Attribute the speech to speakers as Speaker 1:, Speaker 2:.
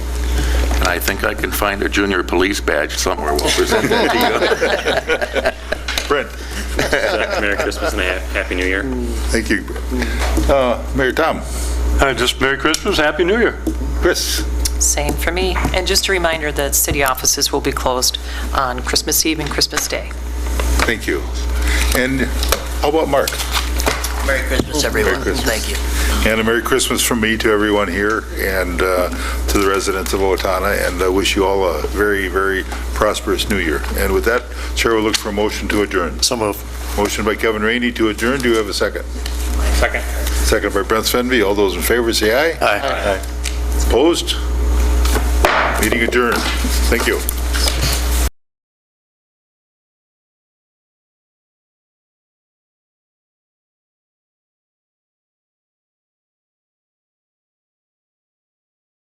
Speaker 1: and I think I can find a junior police badge somewhere. We'll present that to you.
Speaker 2: Brent,
Speaker 3: Merry Christmas and a hap- Happy New Year.
Speaker 2: thank you. Uh, Mayor Tom,
Speaker 4: Uh, Just Merry Christmas, Happy New Year.
Speaker 2: Chris,
Speaker 5: Same for me. And just a reminder that city offices will be closed on Christmas Eve and Christmas Day.
Speaker 2: thank you. And how about Mark?
Speaker 6: Merry Christmas, everyone.
Speaker 2: Christmas.
Speaker 6: Thank you.
Speaker 2: And a Merry Christmas from me to everyone here and uh, to the residents of Owatonna, and I wish you all a very, very prosperous new year. And with that, Chair will look for a motion to adjourn.
Speaker 4: So moved.
Speaker 2: Motion by Kevin Rainey to adjourn. Do you have a second?
Speaker 3: Second.
Speaker 2: Second by Brent Svenby. All those in favor, say aye.
Speaker 4: Aye.
Speaker 2: Opposed? Meeting adjourned. Thank you.